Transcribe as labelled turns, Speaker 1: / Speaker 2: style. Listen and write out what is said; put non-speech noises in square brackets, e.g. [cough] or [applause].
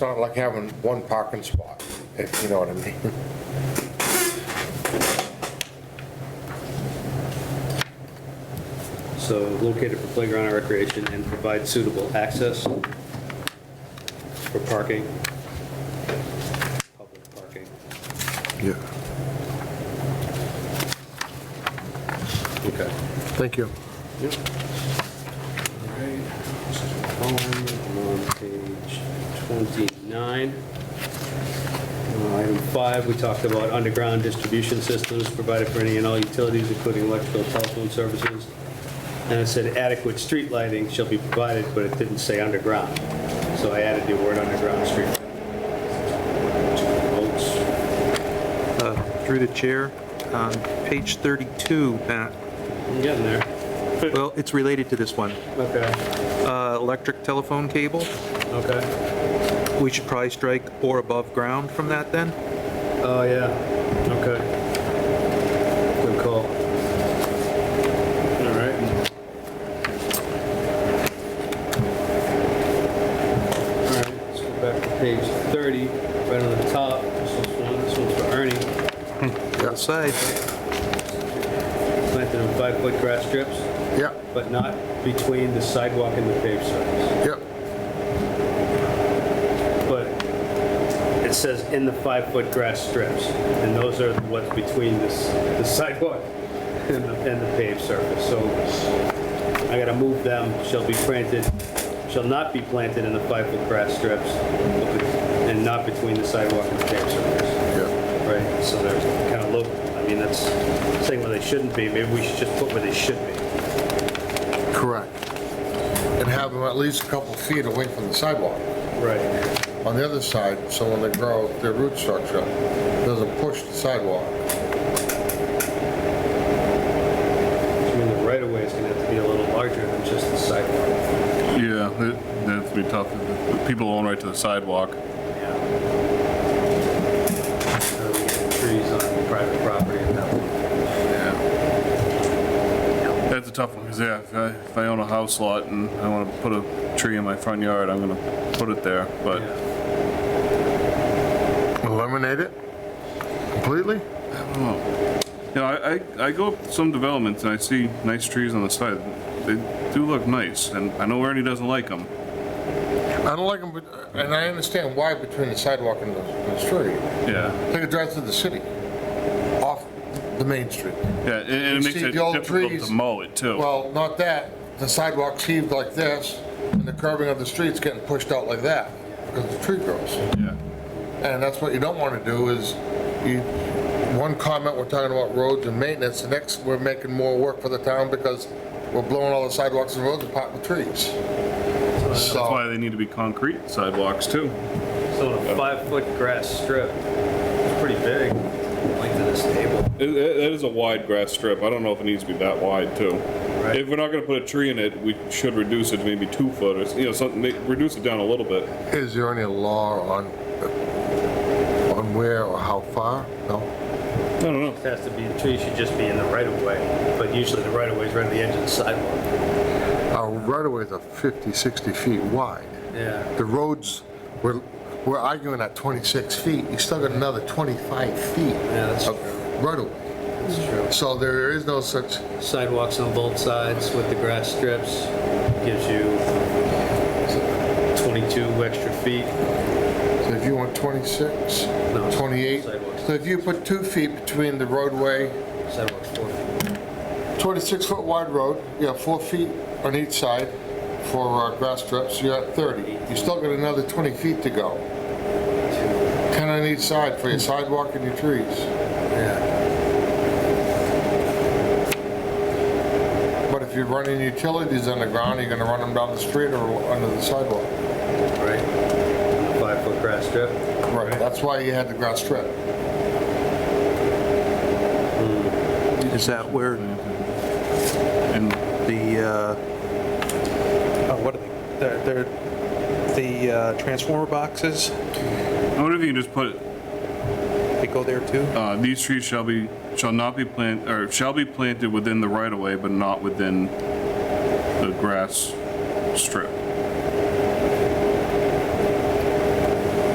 Speaker 1: not like having one parking spot, if you know what I mean.
Speaker 2: So located for playground and recreation and provide suitable access for parking, public parking.
Speaker 3: [laughs] Yeah,
Speaker 2: Okay.
Speaker 3: thank you.
Speaker 2: On page 29. Uh, Item five, we talked about underground distribution systems provided for any and all utilities, including electrical, telephone services. And it said adequate street lighting shall be provided, but it didn't say underground. So I added the word underground street. Votes.
Speaker 4: Through the chair, um, page 32, Matt.
Speaker 2: I'm getting there.
Speaker 4: Well, it's related to this one.
Speaker 2: Okay,
Speaker 4: Uh, Electric telephone cable,
Speaker 2: okay.
Speaker 4: we should probably strike or above ground from that then?
Speaker 2: Oh, yeah, okay. Good call. All right. All right, let's go back to page 30, right on the top. This is one, this one's for Ernie.
Speaker 4: Outside,
Speaker 2: Planted on five-foot grass strips,
Speaker 3: Yeah,
Speaker 2: but not between the sidewalk and the paved surface.
Speaker 3: yeah,
Speaker 2: But it says in the five-foot grass strips, and those are what's between this, the sidewalk and the, and the paved surface, so I gotta move them, shall be planted, shall not be planted in the five-foot grass strips, and not between the sidewalk and the paved surface,
Speaker 3: yeah.
Speaker 2: right? So they're kinda low, I mean, that's saying where they shouldn't be, maybe we should just put where they should be.
Speaker 3: Correct. And have them at least a couple feet away from the sidewalk
Speaker 2: Right.
Speaker 3: on the other side, so when they grow, their root structure doesn't push the sidewalk.
Speaker 2: I mean, the right-of-way is gonna have to be a little larger than just the sidewalk.
Speaker 5: Yeah, that- that'd be tough. People own right to the sidewalk.
Speaker 2: Yeah. So we get Trees on private property and that one.
Speaker 5: Yeah. That's a tough one, because yeah, if I, if I own a house lot and I want to put a tree in my front yard, I'm gonna put it there, but
Speaker 2: Yeah.
Speaker 3: Eliminate it completely?
Speaker 5: I don't know. You know, I, I, I go up to some developments and I see nice trees on the side. They do look nice, and I know Ernie doesn't like them.
Speaker 3: I don't like them, and I understand why between the sidewalk and the and the street.
Speaker 5: Yeah,
Speaker 3: Take a drive through the city, off the main street.
Speaker 5: yeah, and- and it
Speaker 3: You
Speaker 5: makes
Speaker 3: see
Speaker 5: it
Speaker 3: the old
Speaker 5: difficult
Speaker 3: trees.
Speaker 5: to mow it too.
Speaker 3: Well, not that, the sidewalk's heaved like this, and the curving of the street's getting pushed out like that, because the tree grows.
Speaker 5: Yeah,
Speaker 3: And that's what you don't want to do is, you, one comment, we're talking about roads and maintenance, the next, we're making more work for the town because we're blowing all the sidewalks and roads apart with trees.
Speaker 5: that's why
Speaker 3: So,
Speaker 5: they need to be concrete sidewalks too.
Speaker 2: So a five-foot grass strip, it's pretty big, length of this table.
Speaker 5: It, it, that is a wide grass strip. I don't know if it needs to be that wide too.
Speaker 2: Right.
Speaker 5: If we're not going to put a tree in it, we should reduce it to maybe two foot or s- you know something. ma- Reduce it down a little bit.
Speaker 3: is there any law on, on where or how far? No?
Speaker 5: I don't know.
Speaker 2: It has to be, the tree should just be in the right-of-way, but usually the right-of-way is right at the edge of the sidewalk.
Speaker 3: Our right-of-ways are 50, 60 feet wide.
Speaker 2: Yeah.
Speaker 3: The roads, we're, we're arguing at 26 feet, you still got another 25 feet
Speaker 2: that's
Speaker 3: of right-of-way.
Speaker 2: That's true.
Speaker 3: So there is no such,
Speaker 2: Sidewalks on both sides with the grass strips gives you 22 extra feet.
Speaker 3: So if you want 26,
Speaker 2: No,
Speaker 3: 28,
Speaker 2: sidewalks.
Speaker 3: so if you put two feet between the roadway,
Speaker 2: Sidewalks four feet.
Speaker 3: 26-foot wide road, you have four feet on each side for uh, grass strips, you're at 30. You still got another 20 feet to go. 10 on each side for your sidewalk and your trees.
Speaker 2: Yeah.
Speaker 3: But if you're running utilities underground, you're gonna run them down the street or under the sidewalk.
Speaker 2: Right. Five-foot grass strip.
Speaker 3: Right, that's why you had the grass strip.
Speaker 4: is that where
Speaker 5: And
Speaker 4: the, uh, oh, what are they, they're, they're- the uh, transformer boxes,
Speaker 5: I wonder if you can just put
Speaker 4: they go there too?
Speaker 5: uh, these trees shall be shall not be planted or shall be planted within the right of way, but not within the grass strip.